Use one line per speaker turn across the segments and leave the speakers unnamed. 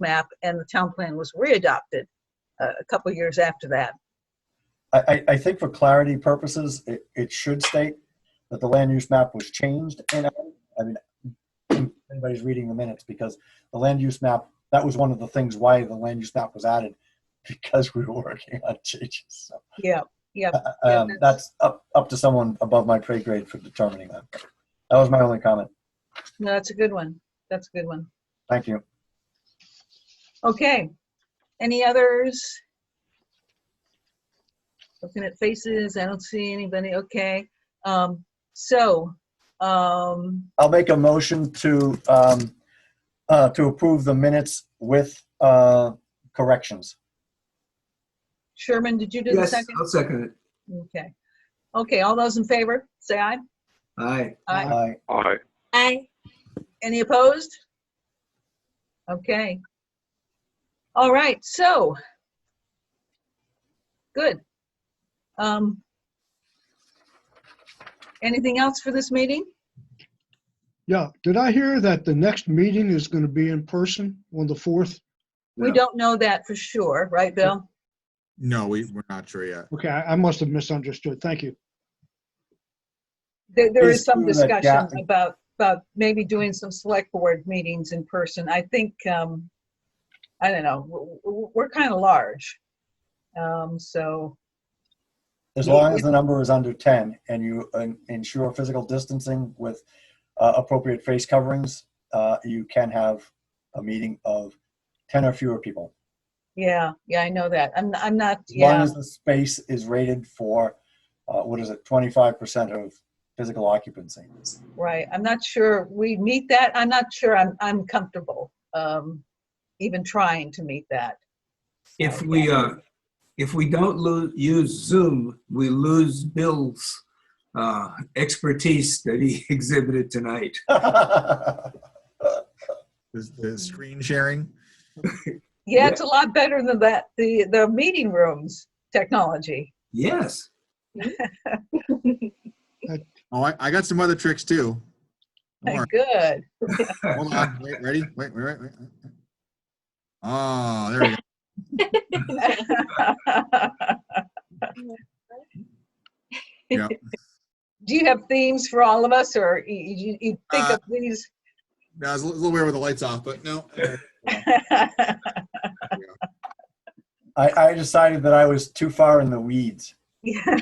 map and the town plan was readopted uh, a couple years after that.
I, I, I think for clarity purposes, it, it should state that the land use map was changed and, I mean, if anybody's reading the minutes because the land use map, that was one of the things why the land use map was added because we were working on changes. So,
Yeah, Yeah,
um,
that's-
that's up, up to someone above my pay grade for determining that. That was my only comment.
no, that's a good one. That's a good one.
Thank you.
Okay, any others? Looking at faces, I don't see anybody, okay. Um, so, um,
I'll make a motion to, um, uh, to approve the minutes with, uh, corrections.
Sherman, did you do the
Yes,
second?
I'll second it.
Okay, okay, all those in favor, say aye.
Aye.
Aye.
I,
Aye.
Aye.
Any opposed? Okay. All right, so. Good. Um. Anything else for this meeting?
Yeah, did I hear that the next meeting is going to be in person on the 4th?
We
No.
don't know that for sure, right, Bill?
No, we, we're not sure yet.
Okay, I I must have misunderstood. Thank you.
There, there is
It's
some
true that
discussion
Gatling-
about, about maybe doing some select board meetings in person. I think, um, I don't know, w- w- we're kind of large. Um, so,
As
Yeah,
long
we-
as the number is under 10 and you uh, ensure physical distancing with uh, appropriate face coverings, uh, you can have a meeting of 10 or fewer people.
yeah, yeah, I know that. I'm, I'm not,
As long
yeah,
as the space is rated for, uh, what is it, 25% of physical occupancy.
right. I'm not sure we meet that. I'm not sure I'm, I'm comfortable, um, even trying to meet that.
If we, uh, if we don't lo- use Zoom, we lose Bill's uh, expertise that he exhibited tonight.
Is the screen sharing?
Yeah, it's a lot better than that, the, the meeting rooms technology.
Yes.
Oh, I, I got some other tricks too. Don't worry.
Good.
Hold on. Wait, ready? Wait, wait, wait, wait. wait. Oh, there we go. Yeah.
Do you have themes for all of us, or you, you, you think of these?
That was a little weird with the lights off, but no.
I, I decided that I was too far in the weeds.
Yeah.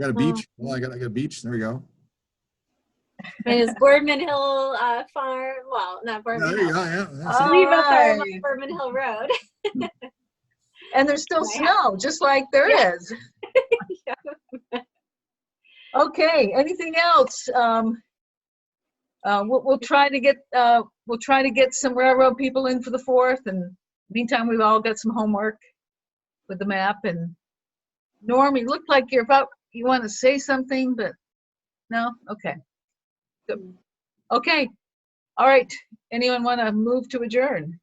Got a beach. Well, I got, I got a beach. There we go.
And it's Boardman Hill uh, Farm, well, not
Yeah,
Boardman
There you
Hill.
go. Yeah. that's it.
Sliwa Farm
Alright.
on Boardman Hill Road.
And there's still snow, just like there
Yeah.
is. Okay, anything else? Um, uh, we'll, we'll try to get, uh, we'll try to get some railroad people in for the fourth, and meantime, we've all got some homework with the map, and Norm, you look like you're about, you want to say something, but, no, okay. Good. Okay, all right, anyone want to move to adjourn?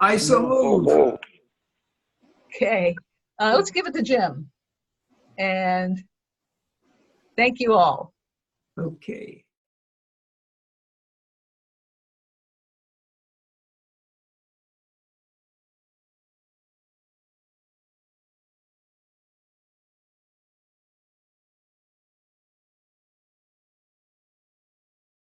I so move.
Oh,
Okay, uh, let's give it to Jim. And thank you all.
oh.
Okay.